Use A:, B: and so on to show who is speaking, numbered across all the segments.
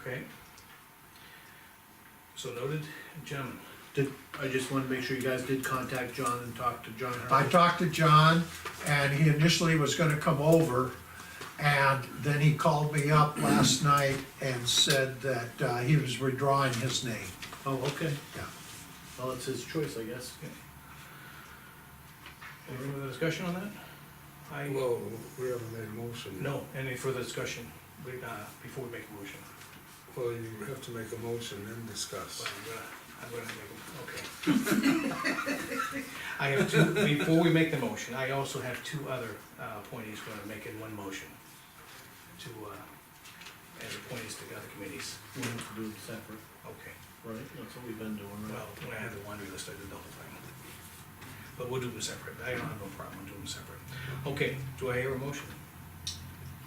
A: Okay. So noted, gentlemen,
B: Did, I just wanted to make sure you guys did contact John and talk to John
C: I
B: Hurley.
C: talked to John, and he initially was gonna come over, and then he called me up last night and said that, uh, he was withdrawing his name.
B: Oh, okay.
C: Yeah.
B: Well, it's his choice, I guess.
A: any further discussion on that? I,
D: Well, we haven't made a motion.
A: no, any further discussion, we- uh, before we make a motion?
D: Well, you have to make a motion and discuss.
A: Well, I'm gonna, I'm gonna make, okay. I have two, before we make the motion, I also have two other uh, appointees we're gonna make in one motion. To, uh, as appointees to the other committees.
B: We have to do it separate,
A: Okay.
B: right? That's what we've been doing,
A: Well,
B: right?
A: when I had the laundry list, I did the whole thing. But we'll do them separate, I don't have no problem doing them separate. Okay, do I hear a motion?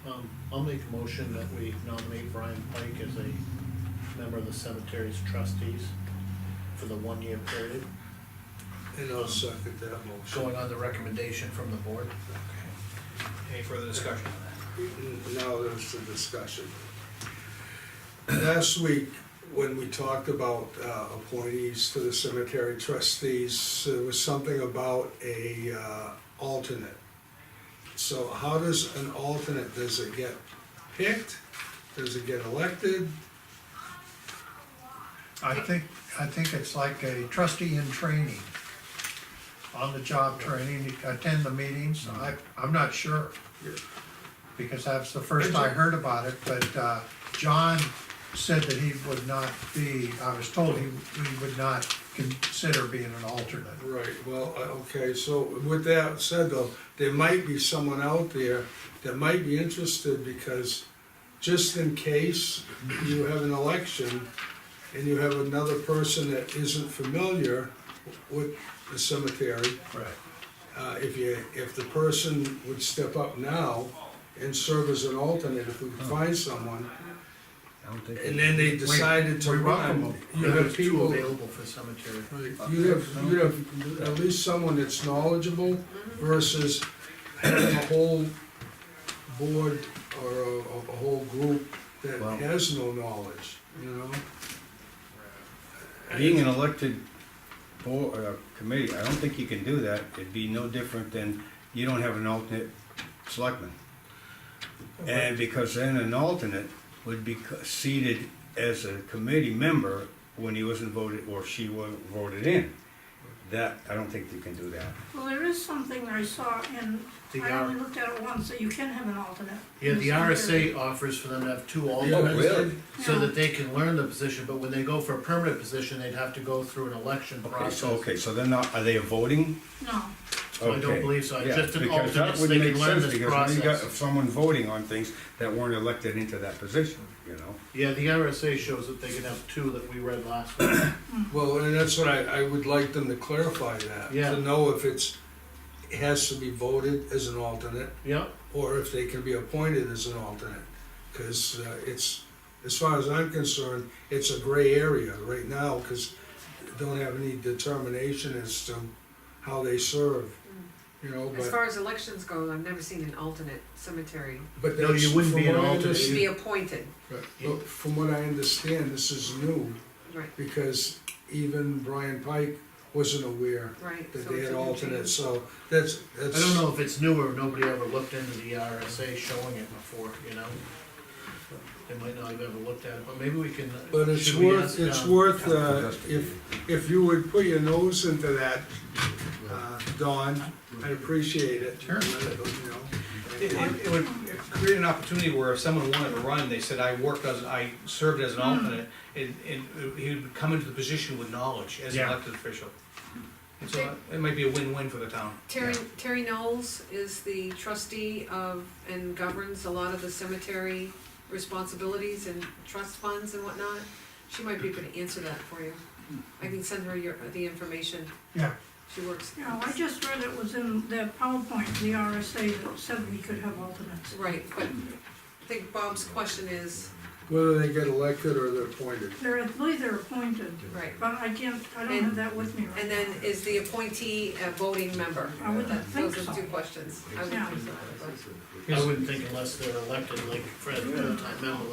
B: Um, I'll make a motion that we nominate Brian Pike as a member of the cemetery's trustees for the one-year period,
D: And I'll second that motion.
B: going on the recommendation from the board.
A: Okay. Any further discussion on that?
D: Now there's the discussion. Last week, when we talked about uh, appointees to the cemetery trustees, there was something about a uh, alternate. So how does an alternate, does it get picked? Does it get elected?
C: I think, I think it's like a trustee in training, on-the-job training, attend the meetings, I, I'm not sure.
D: Yeah.
C: Because that's the first I heard about it, but, uh, John said that he would not be, I was told he, he would not consider being an alternate.
D: Right, well, I- okay, so with that said though, there might be someone out there that might be interested because just in case you have an election and you have another person that isn't familiar with the cemetery,
C: Right.
D: uh, if you, if the person would step up now and serve as an alternate, if we could find someone,
E: I don't think.
D: and then they decided to
C: we welcome
D: run,
C: them.
D: you have
B: There's two
D: people
B: available for cemetery.
D: Right, you have, you have at least someone that's knowledgeable versus having a whole board or a, a whole group that
E: Well-
D: has no knowledge, you know?
E: Being an elected board, uh, committee, I don't think you can do that, it'd be no different than, you don't have an alternate selectman. And because then an alternate would be c- seated as a committee member when he wasn't voted, or she was voted in. That, I don't think you can do that.
F: Well, there is something I saw and
B: The
F: I only
B: R,
F: looked at it once, that you can have an alternate.
B: yeah, the RSA offers for them to have two
D: Oh,
B: alternates,
E: really?
B: so that they can learn the position, but when they go for a permanent position, they'd have to go through an election
E: Okay,
B: process.
E: so, okay, so they're not, are they voting?
F: No,
B: So I don't
E: Okay.
B: believe so. It's
E: Yeah,
B: just an
E: because that
B: alternate so
E: would
B: they can
E: make
B: learn
E: sense,
B: this
E: because when you
B: process.
E: got Someone voting on things that weren't elected into that position, you know?
B: Yeah, the RSA shows that they can have two that we read last week.
D: Well, and that's what I, I would like them to clarify that,
B: Yeah.
D: to know if it's, it has to be voted as an alternate
B: Yeah,
D: or if they can be appointed as an alternate. Cause uh, it's, as far as I'm concerned, it's a gray area right now, cause they don't have any determination as to how they serve, you know,
G: Mm. As
D: but.
G: far as elections go, I've never seen an alternate cemetery
D: but
B: No,
D: that's-
B: you wouldn't
D: from
B: be an
D: what I
B: alternate.
D: understand-
G: be appointed,
D: but- but From what I understand, this is new,
G: right,
D: because even Brian Pike wasn't aware
G: right.
D: that
G: so
D: they
G: it's
D: had
G: a new
D: alternates,
G: change.
D: so that's, that's.
B: I don't know if it's new or nobody ever looked into the RSA showing it before, you know? They might not have ever looked at it, but maybe we can. uh,
D: But it's
B: should we
D: worth,
B: ask,
D: it's
B: um,
D: worth, uh,
E: Investigate.
D: if, if you would put your nose into that, uh, Don, I appreciate it.
C: Sure.
D: You
A: It,
D: know,
A: it- it would create an opportunity where if someone wanted to run, they said, I worked as, I served as an alternate, and, and he would come into the position with knowledge as an
B: Yeah.
A: elected official. And so it might be a win-win for the town.
G: Terry, Terry Knowles is the trustee of, and governs a lot of the cemetery responsibilities and trust funds and whatnot. She might be able to answer that for you. I can send her your, the information,
C: Yeah,
G: she works.
F: you know, I just read it was in their PowerPoint, the RSA that said we could have alternates.
G: Right, but I think Bob's question is,
D: Whether they get elected or they're appointed.
F: They're, I believe they're appointed,
G: right,
F: but I can't, I don't have that with me right now.
G: and then is the appointee a voting member?
F: I wouldn't
G: That-
F: think
G: Those
F: so.
G: are two questions. I would
F: Yeah.
G: think so, but-
B: I wouldn't think unless they're elected, like Fred, time,